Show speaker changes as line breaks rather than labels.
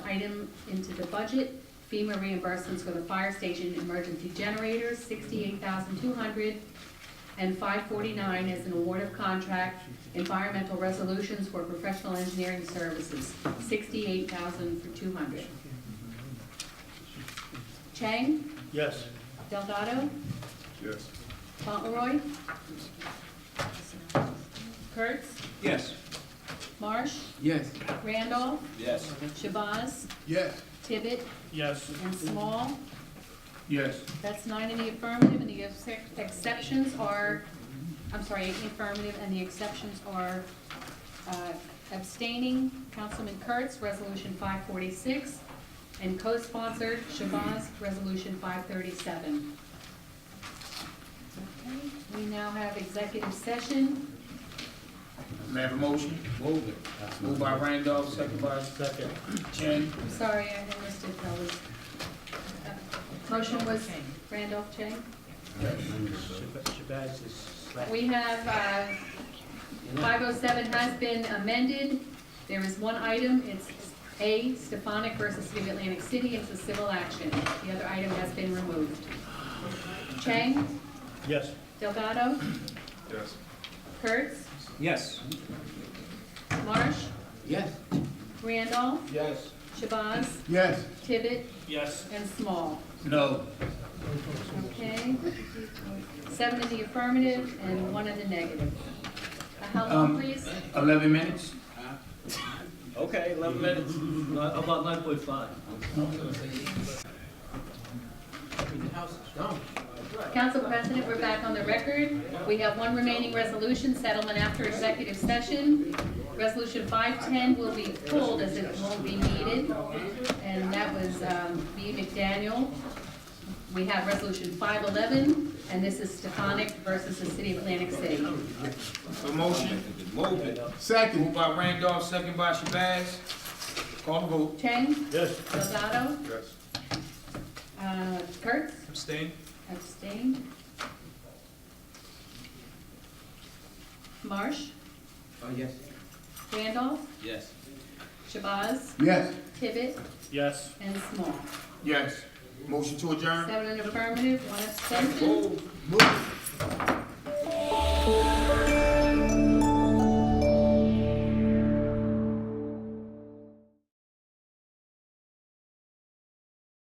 item into the budget, FEMA reimbursements for the fire station emergency generators, sixty-eight thousand two hundred, and five forty-nine is an award of contract, environmental resolutions for professional engineering services, sixty-eight thousand for two hundred. Chang,
Yes.
Delgado,
Yes.
Fauntleroy, Kurtz,
Yes.
Marsh,
Yes.
Randolph,
Yes.
Shabazz,
Yes.
Tibbet,
Yes.
and Small.
Yes.
That's nine in the affirmative, and the ex- exceptions are, I'm sorry, eight in the affirmative, and the exceptions are uh, abstaining, Councilman Kurtz, Resolution 546, and co-sponsored, Shabazz, Resolution 537. Okay, We now have executive session.
May I have a motion? Move it. Moved by Randolph, second by
Second.
Chen.
I'm sorry, I had listed those. Uh, Motion was Randolph Chang.
Shabazz is slack.
We have, uh, 507 has been amended. There is one item, it's A, Stefanik versus City of Atlantic City, it's a civil action. The other item has been removed. Chang,
Yes.
Delgado,
Yes.
Kurtz,
Yes.
Marsh,
Yes.
Randolph,
Yes.
Shabazz,
Yes.
Tibbet,
Yes.
and Small.
No.
Okay? Seven in the affirmative and one in the negative. Uh, How long,
Um,
please?
Eleven minutes?
Okay, eleven minutes, Uh, about nine point five.
Council President, we're back on the record. We have one remaining resolution, settlement after executive session. Resolution 510 will be pulled as it won't be needed, and that was um, B. McDaniel. We have Resolution 511, and this is Stefanik versus the City of Atlantic City.
A motion? Move it. Second. Moved by Randolph, second by Shabazz. Call the vote.
Chang,
Yes.
Delgado,
Yes.
uh, Kurtz,
Abstain?
abstain. Marsh,
Oh, yes.
Randolph,
Yes.
Shabazz,
Yes.
Tibbet,
Yes.
and Small.
Yes. Motion to adjourn?
Seven in affirmative, one abstention.
Move.